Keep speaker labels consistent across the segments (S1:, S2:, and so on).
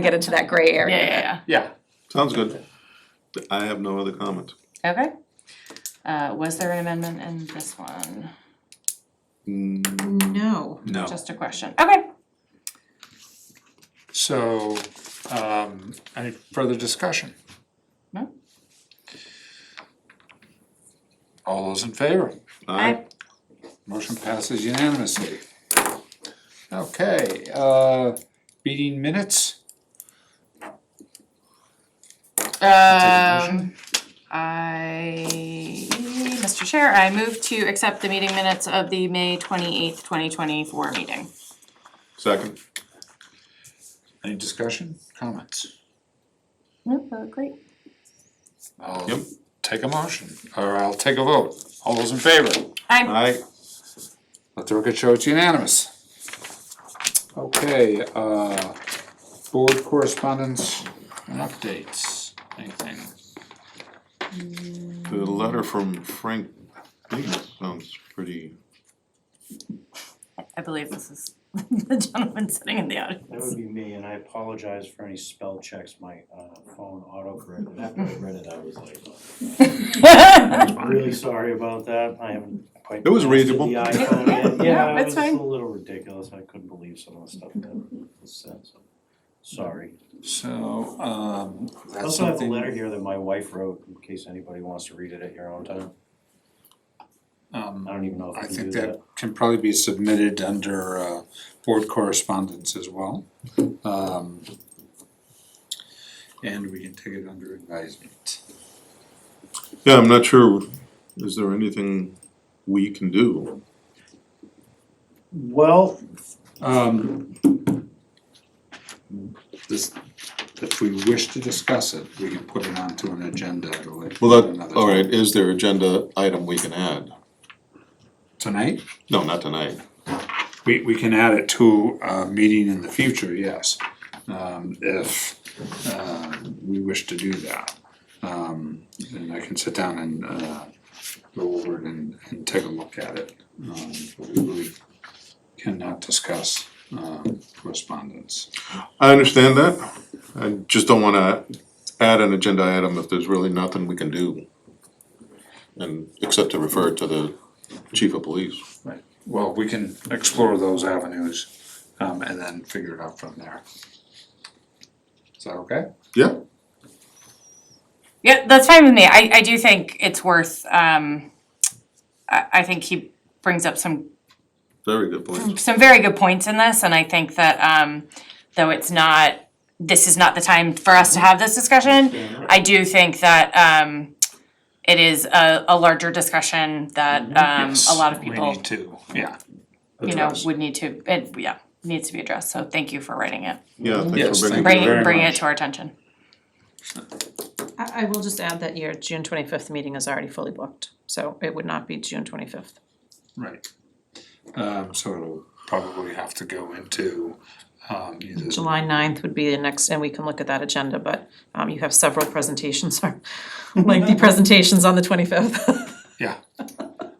S1: get into that gray
S2: Yeah,
S1: area.
S2: yeah,
S3: Yeah.
S4: Sounds good. I have no other comment.
S2: yeah. Okay. Uh, was there an amendment in this one?
S4: Mm,
S5: No.
S4: No.
S2: Just a question. Okay.
S3: So, um, any further discussion?
S2: No.
S3: All those in favor?
S4: Aye.
S3: Motion passes unanimously. Okay, uh, meeting minutes?
S2: Um, I, Mr. Chair, I move to accept the meeting minutes of the May twenty-eighth, twenty twenty-four meeting.
S4: Second.
S3: Any discussion, comments?
S2: Nope, great.
S3: I'll
S4: Yep.
S3: Take a motion, or I'll take a vote. All those in favor?
S2: I'm,
S4: Aye.
S3: Let the record show it's unanimous. Okay, uh, board correspondence and updates, anything?
S4: The letter from Frank Biggins sounds pretty,
S2: I believe this is the gentleman sitting in the
S6: That
S2: audience.
S6: would be me, and I apologize for any spell checks, my uh phone autocorrected, after I read it, I was like, I'm really sorry about that, I haven't quite.
S4: It was
S6: mastered
S4: readable.
S6: The iPhone yet,
S2: No,
S6: yeah, it
S2: it's
S6: was
S2: fine.
S6: a little ridiculous, I couldn't believe some of the stuff that was said, so, sorry.
S3: So, um,
S6: I
S3: that's
S6: also have a
S3: something.
S6: letter here that my wife wrote, in case anybody wants to read it at your own time, I
S3: Um,
S6: don't even know
S3: I
S6: if you can
S3: think
S6: do that.
S3: that can probably be submitted under, uh, board correspondence as well. Um, and we can take it under advisement.
S4: yeah, I'm not sure, is there anything we can do?
S6: Well,
S3: Um, this, if we wish to discuss it, we can put it onto an agenda at a later.
S4: Well, that,
S3: another
S4: all right,
S3: time.
S4: is there agenda item we can add?
S3: Tonight,
S4: No, not tonight.
S3: we, we can add it to a meeting in the future, yes, um, if, uh, we wish to do that. Um, and I can sit down and, uh, go over it and, and take a look at it. Um, but we really cannot discuss, um, correspondence.
S4: I understand that. I just don't wanna add an agenda item if there's really nothing we can do. And, except to refer to the chief of police.
S3: Well, we can explore those avenues, um, and then figure it out from there. Is that okay?
S4: Yeah,
S2: Yeah, that's fine with me. I, I do think it's worth, um, I, I think he brings up some
S4: very good point.
S2: some very good points in this, and I think that um, though it's not, this is not the time for us to have this discussion. I do think that um, it is a, a larger discussion that um, a lot of
S3: Mm-hmm. We
S2: people,
S3: need to, yeah.
S2: you know,
S3: address.
S2: would need to. It, yeah, needs to be addressed. So thank you for writing it.
S4: Yeah,
S3: Yes,
S4: thanks for
S3: thank
S4: bringing.
S2: Bring
S3: you very
S2: bring it
S3: much.
S2: to our attention.
S5: I, I will just add that your June twenty-fifth meeting is already fully booked, so it would not be June twenty-fifth.
S3: Right. Um, so it'll probably have to go into, um, either.
S5: July 9th would be the next, and we can look at that agenda, but, um, you have several presentations, or lengthy presentations on the twenty-fifth.
S3: Yeah,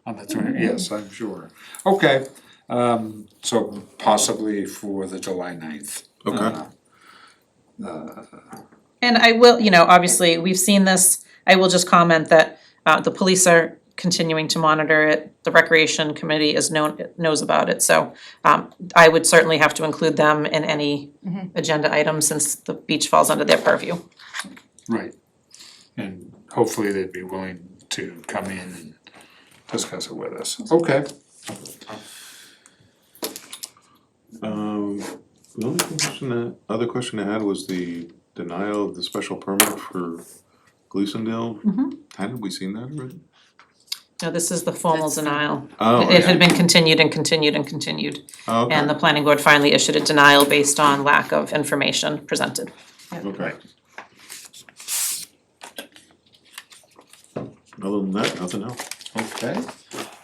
S3: on the twenty, yes, I'm sure. Okay, um, so possibly for the July ninth.
S4: Okay.
S5: And I will, you know, obviously, we've seen this, I will just comment that, uh, the police are continuing to monitor it. The Recreation Committee is known, knows about it, so, um, I would certainly have to include them in any
S1: Mm-hmm.
S5: agenda item since the beach falls under their purview.
S3: Right. And hopefully they'd be willing to come in and discuss it with us. Okay.
S4: Um, the only question that, other question I had was the denial of the special permit for Gleasondale.
S3: Mm-hmm.
S4: Hadn't we seen that already?
S5: No, this is the formal denial.
S4: Oh,
S5: It
S4: okay.
S5: had been continued and continued and continued,
S4: Oh,
S5: and the
S4: okay,
S5: planning board finally issued a denial based on lack of information presented.
S4: okay. Other than that, nothing else.
S3: Okay.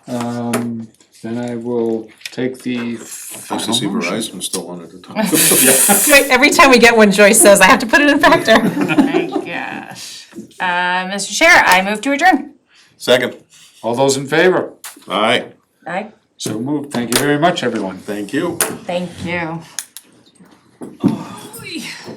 S3: Um, then I will take the
S4: Nice to
S3: final
S4: see
S3: motion.
S4: Verizon still wanted to talk.
S5: Right, every time we get one, Joyce says, I have to put it in factor.
S2: My gosh, uh, Mr. Chair, I move to adjourn.
S4: Second.
S3: All those in favor?
S4: All right,
S2: Aye.
S3: So moved. Thank you very much, everyone.
S4: thank you.
S2: Thank you.